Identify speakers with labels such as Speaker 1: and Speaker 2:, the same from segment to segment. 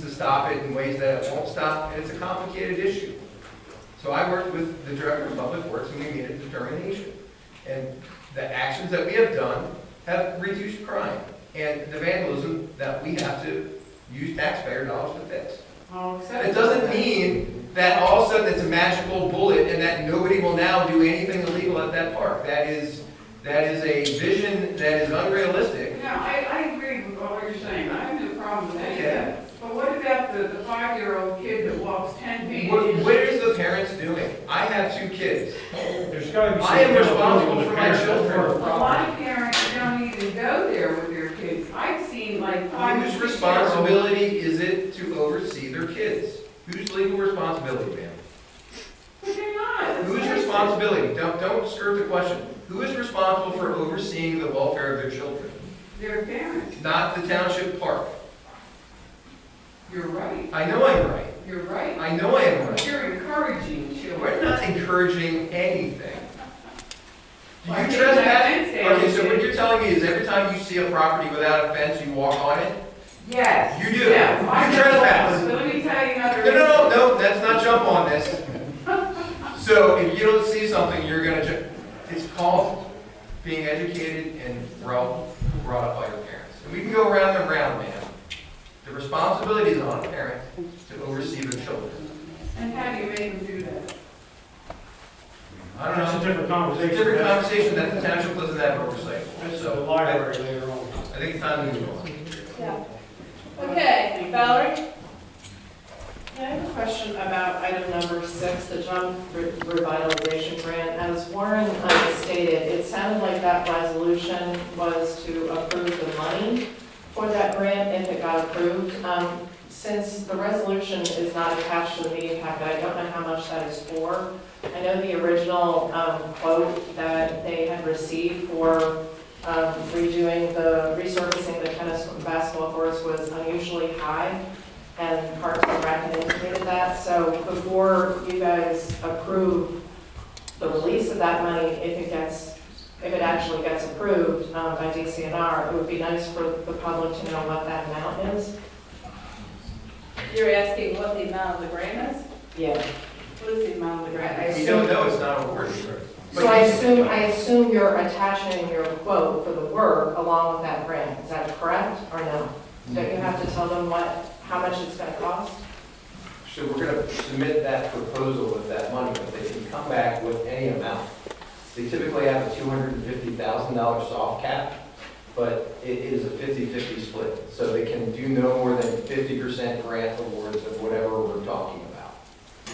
Speaker 1: to stop it in ways that it won't stop, and it's a complicated issue. So I worked with the Director of Public Works, and we made a determination. And the actions that we have done have reduced crime and the vandalism that we have to use taxpayer dollars to fix. And It doesn't mean that all of a sudden it's a magical bullet and that nobody will now do anything illegal at that park. That is, that is a vision that is unrealistic.
Speaker 2: No, I, I agree with all you're saying, I have no problem with any of
Speaker 1: Yeah.
Speaker 2: that. But what about the, the five-year-old kid that walks ten feet?
Speaker 1: What, what is the parents doing? I have two kids.
Speaker 3: There's gotta be some.
Speaker 1: I am responsible
Speaker 3: accountability
Speaker 1: for
Speaker 3: with
Speaker 1: my
Speaker 3: parents.
Speaker 1: children.
Speaker 2: A lot of parents don't even go there with their kids. I've seen like five.
Speaker 1: Whose
Speaker 2: six-year-olds.
Speaker 1: responsibility is it to oversee their kids? Whose legal responsibility, ma'am?
Speaker 2: But they're not. That's
Speaker 1: Whose
Speaker 2: what I said.
Speaker 1: responsibility? Don't, don't skirt the question. Who is responsible for overseeing the welfare of their children?
Speaker 2: Their parents,
Speaker 1: Not the township park.
Speaker 2: you're right,
Speaker 1: I know I'm right.
Speaker 2: you're right.
Speaker 1: I know I am right.
Speaker 2: You're encouraging
Speaker 1: We're
Speaker 2: children.
Speaker 1: not encouraging anything. Do
Speaker 2: Well, I
Speaker 1: you
Speaker 2: think
Speaker 1: trespass?
Speaker 2: that fence down
Speaker 1: Okay, so what
Speaker 2: is-
Speaker 1: you're telling me is every time you see a property without a fence, you walk on it?
Speaker 2: Yes.
Speaker 1: You do.
Speaker 2: Yeah,
Speaker 1: You
Speaker 2: my
Speaker 1: trespass.
Speaker 2: goodness. But let me tell you another.
Speaker 1: No, no, no, no, let's not jump on this. So if you don't see something, you're gonna ju, it's called being educated and brought, brought up by your parents. And we can go round and round, man. The responsibility is on a parent to oversee their children.
Speaker 2: And how do you make them do that?
Speaker 1: I don't
Speaker 3: That's a
Speaker 1: know,
Speaker 3: different
Speaker 1: it's a
Speaker 3: conversation.
Speaker 1: different
Speaker 3: That's-
Speaker 1: conversation that the township doesn't have oversight.
Speaker 3: That's the
Speaker 1: So I
Speaker 3: library later on.
Speaker 1: I think it's time to move on.
Speaker 4: Yeah. Okay, Valerie?
Speaker 5: I have a question about item number six, the job re- revitalization grant. As Warren uh, stated, it sounded like that resolution was to approve the money for that grant if it got approved. Um, Since the resolution is not attached to the meeting packet, I don't know how much that is for. I know the original um, quote that they had received for um, redoing the, resurfacing the tennis and basketball courts was unusually high, and Parks and Rec had indicated that, so before you guys approve the release of that money, if it gets, if it actually gets approved um, by DCNR, it would be nice for the public to know what that amount is.
Speaker 4: You're asking what the amount of the grant is?
Speaker 5: Yeah.
Speaker 4: What is the amount of the grant?
Speaker 1: We don't know, it's not a word.
Speaker 5: So I assume, I assume you're attaching your quote for the work along with that grant, is that correct, or no? Don't you have to tell them what, how much it's gonna cost?
Speaker 1: So we're gonna submit that proposal with that money, but they can come back with any amount. They typically have a two hundred and fifty thousand dollar soft cap, but it is a 50-50 split. So they can do no more than fifty percent grant awards of whatever we're talking about.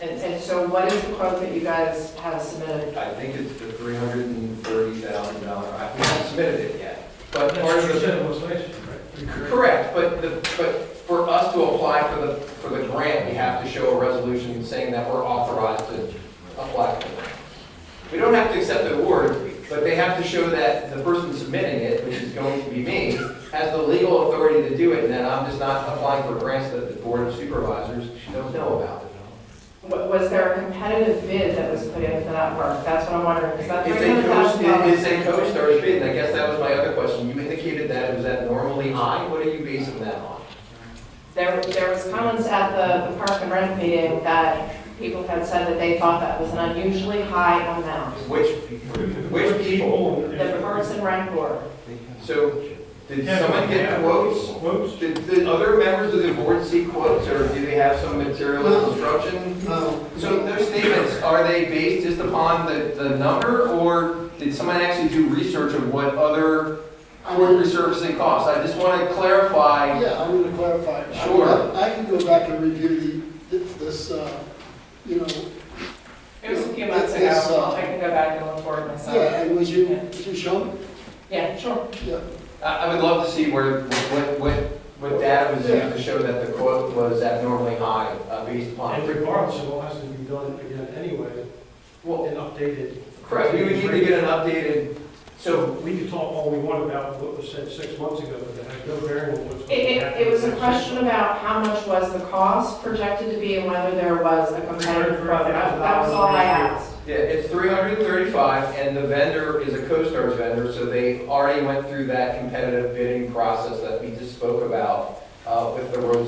Speaker 5: And, and so what is the quote that you guys have submitted?
Speaker 1: I think it's the three hundred and thirty thousand dollar, I haven't submitted it yet. But
Speaker 3: That's
Speaker 1: part
Speaker 3: what you
Speaker 1: of the,
Speaker 3: said, was right?
Speaker 1: correct, but the, but for us to apply for the, for the grant, we have to show a resolution saying that we're authorized to apply for the grant. We don't have to accept the award, but they have to show that the person submitting it, which is going to be me, has the legal authority to do it, and that I'm just not applying for grants that the Board of Supervisors don't know about.
Speaker 5: Wa- Was there a competitive bid that was put in for that work? That's what I'm wondering, is that
Speaker 1: It's
Speaker 5: three
Speaker 1: a
Speaker 5: hundred thousand dollars?
Speaker 1: coach, it's a coach that was bid, and I guess that was my other question. You indicated that, it was that normally high? What are you basing that on?
Speaker 5: There, there was comments at the, the Park and Rec meeting that people had said that they thought that was an unusually high amount.
Speaker 1: Which, which people?
Speaker 5: The Parks and Rec Board,
Speaker 1: So, did someone get quotes?
Speaker 3: Quotes?
Speaker 1: Did, did other members of the board see quotes, or do they have some material instruction? So those statements, are they based just upon the, the number, or did someone actually do research of what other court resurfacing costs? I just want to clarify,
Speaker 6: Yeah, I'm gonna clarify. I-
Speaker 1: Sure.
Speaker 6: I can go back and review the, this, uh, you know, uh,
Speaker 5: it was a few months ago,
Speaker 6: It's, uh,
Speaker 5: I can go back and look for it myself.
Speaker 6: yeah, and was you, was you shown?
Speaker 5: Yeah, sure.
Speaker 6: Yeah.
Speaker 1: I, I would love to see where, what, what, what data was used to show that the quote was abnormally high, uh, based upon.
Speaker 3: And regardless, it all has to be done again anyway,
Speaker 1: Well,
Speaker 3: and updated.
Speaker 1: correct, we would need to get an updated, so
Speaker 3: So we can talk all we want about what was said six months ago, but that has no bearing on what's.
Speaker 5: It, it, it was a question about how much was the cost projected to be and whether there was a competitive quote. That that was all I asked.
Speaker 1: Yeah, it's three hundred and thirty-five, and the vendor is a CoStarz vendor, so they already went through that competitive bidding process that we just spoke about, uh, with the road